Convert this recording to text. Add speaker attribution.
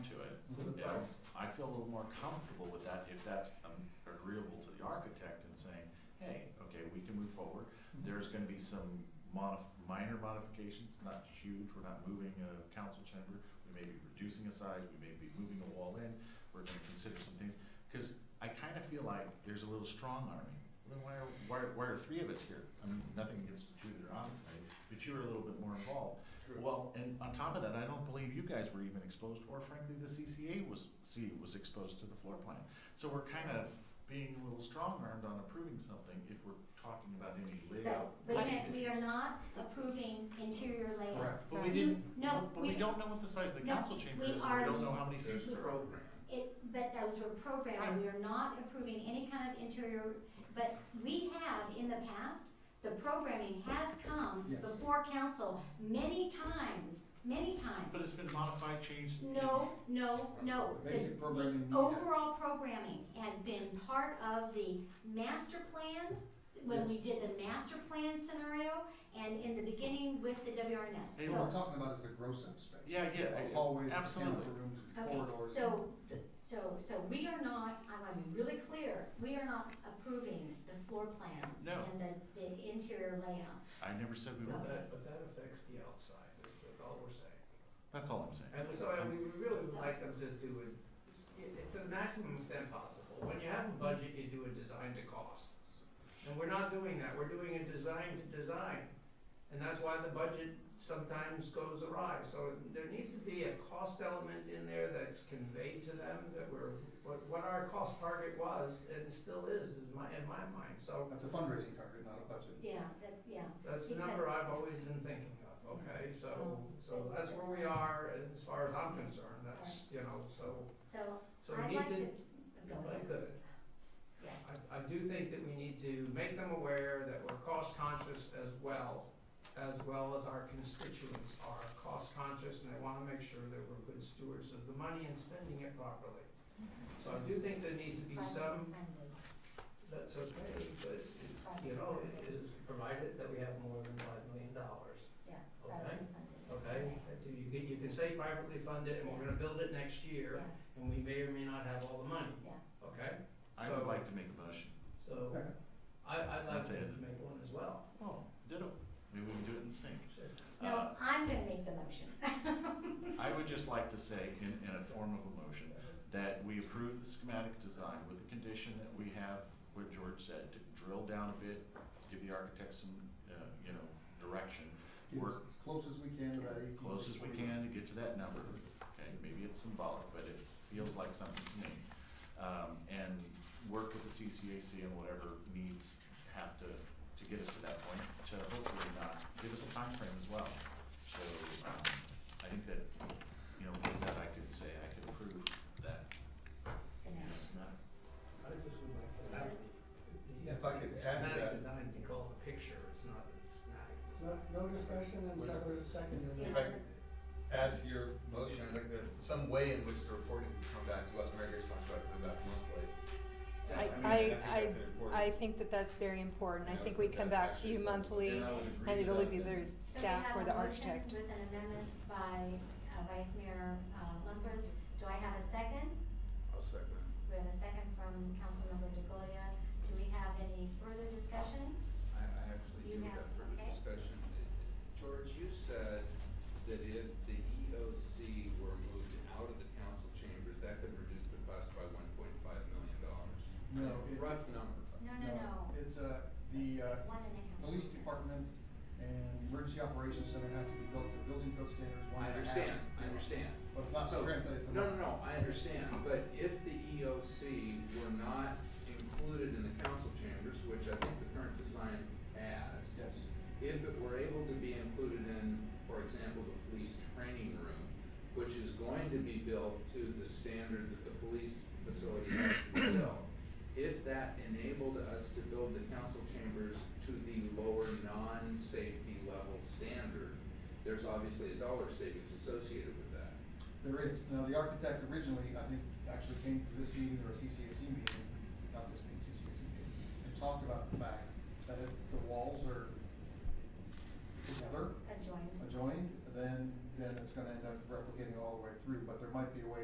Speaker 1: more comfortable with that if that's um, agreeable to the architect and saying, hey, okay, we can move forward. There's gonna be some modif, minor modifications, not huge, we're not moving a council chamber, we may be reducing a size, we may be moving a wall in, we're gonna consider some things. Cause I kinda feel like there's a little strong arming. Then why are, why, are- why are three of us here? I mean, nothing against Judith or Ahmed, right? But you were a little bit more involved. Well, and on top of that, I don't believe you guys were even exposed, or frankly, the CCA was, C was exposed to the floor plan. So we're kind of being a little strong-armed on approving something if we're talking about any layout.
Speaker 2: But
Speaker 1: issues.
Speaker 2: yet, we are not approving interior layouts.
Speaker 1: But we didn't,
Speaker 2: No,
Speaker 1: but we
Speaker 2: we-
Speaker 1: don't know what the size of the
Speaker 2: no,
Speaker 1: council chamber
Speaker 2: we
Speaker 1: is, and we
Speaker 2: are-
Speaker 1: don't know how many
Speaker 3: There's
Speaker 1: seats
Speaker 3: the
Speaker 1: there are.
Speaker 3: program.
Speaker 2: It, but those were programmed, we are not approving any kind of interior, but we have in the past, the programming has come
Speaker 4: Yes.
Speaker 2: before council many times, many
Speaker 1: But
Speaker 2: times.
Speaker 1: it's been modified, changed. and-
Speaker 2: No, no, no.
Speaker 4: The basic
Speaker 2: The- The
Speaker 4: programming we have.
Speaker 2: overall programming has been part of the master plan, when
Speaker 4: Yes.
Speaker 2: we did the master plan scenario, and in the beginning with the WRNS.
Speaker 1: Hey,
Speaker 2: So-
Speaker 4: What we're talking about is the gross up space.
Speaker 1: Yeah, yeah,
Speaker 4: The
Speaker 1: I-
Speaker 4: Hallways, the
Speaker 1: absolutely.
Speaker 4: cantilever rooms, the
Speaker 2: Okay,
Speaker 4: corridors.
Speaker 2: so, th- so, so we are not, I want to be really clear, we are not approving the floor plans
Speaker 1: No.
Speaker 2: and the, the interior layouts.
Speaker 1: I never said we were,
Speaker 2: No.
Speaker 5: That, but that affects the outside, that's, that's all we're saying.
Speaker 1: that's all I'm saying.
Speaker 5: And so I- we we really would like them to do it, it- to the maximum extent possible. When you have a budget, you do a design to cost. And we're not doing that, we're doing a design to design. And that's why the budget sometimes goes awry. So there needs to be a cost element in there that's conveyed to them that we're, what, what our cost target was and still is, is my, in my mind. So
Speaker 4: That's a fundraising target, not a budget.
Speaker 2: Yeah, that's, yeah.
Speaker 5: That's the number I've always been thinking of, okay,
Speaker 2: Oh.
Speaker 5: so, so that's where we are, and as far as I'm concerned, that's, you know, so,
Speaker 2: So
Speaker 5: so
Speaker 2: I'd
Speaker 5: we need
Speaker 2: like
Speaker 5: to,
Speaker 2: to,
Speaker 5: if
Speaker 2: go ahead,
Speaker 5: I could,
Speaker 2: yes.
Speaker 5: I, I do think that we need to make them aware that we're cost conscious as well, as well as our constituents are cost conscious, and they wanna make sure that we're good stewards of the money and spending it properly.
Speaker 2: Mm-hmm.
Speaker 5: So I do think there needs to be some that's okay, but, you know, oh, it is provided that we have more than five million dollars.
Speaker 2: Yeah,
Speaker 5: Okay, okay, If you can, you can say privately fund it, and we're gonna build it next year, and we may or may not have all the money.
Speaker 2: Yeah.
Speaker 5: Okay,
Speaker 1: I
Speaker 5: So-
Speaker 1: would like to make a motion.
Speaker 5: so,
Speaker 4: Okay.
Speaker 5: I, I'd like
Speaker 1: That's
Speaker 5: to
Speaker 1: it.
Speaker 5: make one as well.
Speaker 1: Oh, ditto. Maybe we can do it in sync.
Speaker 5: Uh,
Speaker 2: No, I'm gonna make the motion.
Speaker 1: I would just like to say, in, in a form of a motion, that we approve the schematic design with the condition that we have, what George said, to drill down a bit, give the architect some, uh, you know, direction,
Speaker 4: Get
Speaker 1: Work.
Speaker 4: As close as we can to that eighteen.
Speaker 1: close as we can to get to that number. Okay, maybe it's symbolic, but it feels like something to me. Um, and work with the CCAC and whatever needs have to, to get us to that point, to hopefully not, give us a time frame as well. So, um, I think that, you know, with that, I could say, I could approve that, you know, schematic.
Speaker 5: I just would like to
Speaker 3: have
Speaker 5: the.
Speaker 3: Yeah, if I could add to that.
Speaker 5: designed to call the picture, it's not a snack.
Speaker 6: No, no discussion until there's a second. is
Speaker 2: Yeah.
Speaker 3: If I could add to your motion, I'd like to, some way in which the reporting can come back to us, Mary Grace talked about coming back monthly. Yeah,
Speaker 7: I-
Speaker 3: mean,
Speaker 7: I-
Speaker 3: think that's an important-
Speaker 7: I think that that's very important. I think we come back to you monthly,
Speaker 3: And I would agree
Speaker 7: and
Speaker 3: with
Speaker 7: it'll
Speaker 3: that,
Speaker 7: be
Speaker 3: then.
Speaker 7: the
Speaker 2: So we
Speaker 7: staff
Speaker 2: have
Speaker 7: or
Speaker 2: a
Speaker 7: the
Speaker 2: motion
Speaker 7: architect.
Speaker 2: With an amendment by uh, Vice Mayor uh, Lumpers, do I have a second?
Speaker 3: I'll second.
Speaker 2: We have a second from Councilmember DeGolia. Do we have any further discussion?
Speaker 3: I, I actually
Speaker 2: You
Speaker 3: do
Speaker 2: have-
Speaker 3: have further
Speaker 2: okay.
Speaker 3: discussion. George, you said that if the EOC were moved out of the council chambers, that could reduce the cost by one point five million dollars.
Speaker 4: No, it-
Speaker 3: Rough number.
Speaker 2: No, no, no.
Speaker 4: It's, uh, the, uh,
Speaker 2: One and a half.
Speaker 4: police department and emergency operations center have to be built to building code standards,
Speaker 3: I
Speaker 4: one and a half.
Speaker 3: understand, I understand.
Speaker 4: But it's not
Speaker 3: So-
Speaker 4: translated to.
Speaker 3: No, no, no, I understand, but if the EOC were not included in the council chambers, which I think the current design has.
Speaker 4: Yes.
Speaker 3: If it were able to be included in, for example, the police training room, which is going to be built to the standard that the police facility has to be built. If that enabled us to build the council chambers to the lower non-safety level standard, there's obviously a dollar savings associated with that.
Speaker 4: There is. Now, the architect originally, I think, actually came to this meeting or a CCAC meeting, not this meeting, CCAC meeting, and talked about the fact that if the walls are together,
Speaker 2: Adjoined.
Speaker 4: adjoined, then, then it's gonna end up replicating all the way through, but there might be a way